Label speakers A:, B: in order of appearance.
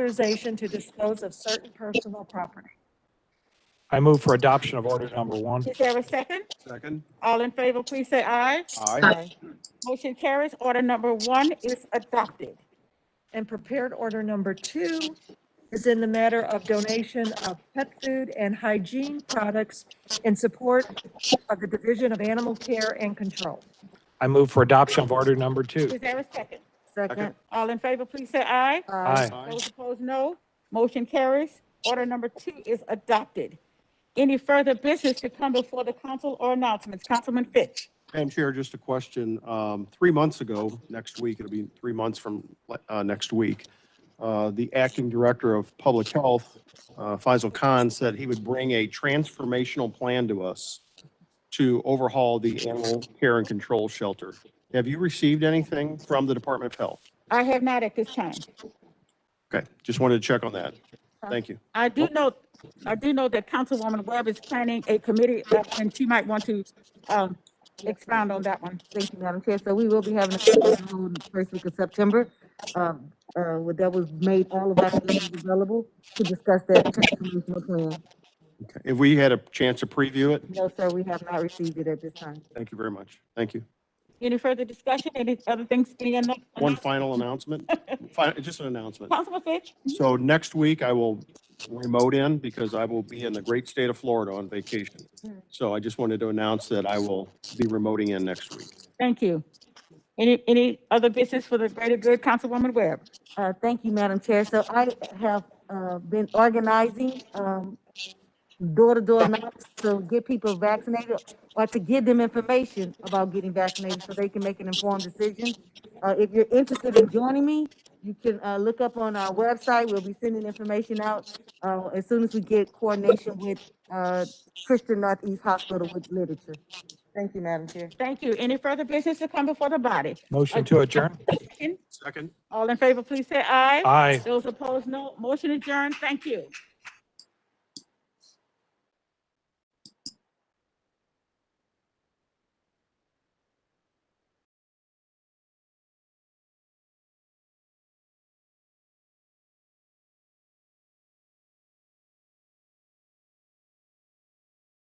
A: authorization to dispose of certain personal property.
B: I move for adoption of order number one.
C: Is there a second?
D: Second.
C: All in favor, please say aye.
D: Aye.
C: Motion carries. Order number one is adopted.
A: And prepared order number two is in the matter of donation of pet food and hygiene products in support of the Division of Animal Care and Control.
B: I move for adoption of order number two.
C: Is there a second?
D: Second.
C: All in favor, please say aye.
B: Aye.
C: Those opposed, no. Motion carries. Order number two is adopted. Any further business to come before the council or announcements? Councilman Fitch.
D: Madam Chair, just a question. Um, Three months ago, next week, it'll be three months from uh, next week, uh, the acting director of public health, uh, Faisal Khan, said he would bring a transformational plan to us to overhaul the animal care and control shelter. Have you received anything from the Department of Health?
C: I have not at this time.
D: Okay, just wanted to check on that. Thank you.
C: I do know, I do know that Councilwoman Webb is planning a committee, uh, and she might want to, um, expound on that one.
E: Thank you, Madam Chair. So we will be having a session on the first week of September. Um, uh, with- that was made all of our members available to discuss that transformational plan.
D: Okay, If we had a chance to preview it,
E: No, sir, we have not received it at this time.
D: thank you very much. Thank you.
C: Any further discussion? Any other things? Any other?
D: One final announcement, Fi- just an announcement.
C: Councilman Fitch?
D: So next week I will remote in because I will be in the great state of Florida on vacation. So I just wanted to announce that I will be remoting in next week.
C: Thank you. Any, any other business for the greater good, Councilwoman Webb?
E: Uh, thank you, Madam Chair. So I have, uh, been organizing, um, door-to-door knocks to get people vaccinated or to give them information about getting vaccinated so they can make an informed decision. Uh, if you're interested in joining me, you can, uh, look up on our website. We'll be sending information out, uh, as soon as we get coordination with, uh, Christian Northeast Hospital with literature. Thank you, Madam Chair.
C: Thank you. Any further business to come before the body?
B: Motion to adjourn.
D: Second?
C: All in favor, please say aye.
B: Aye.
C: Those opposed, no. Motion adjourned. Thank you.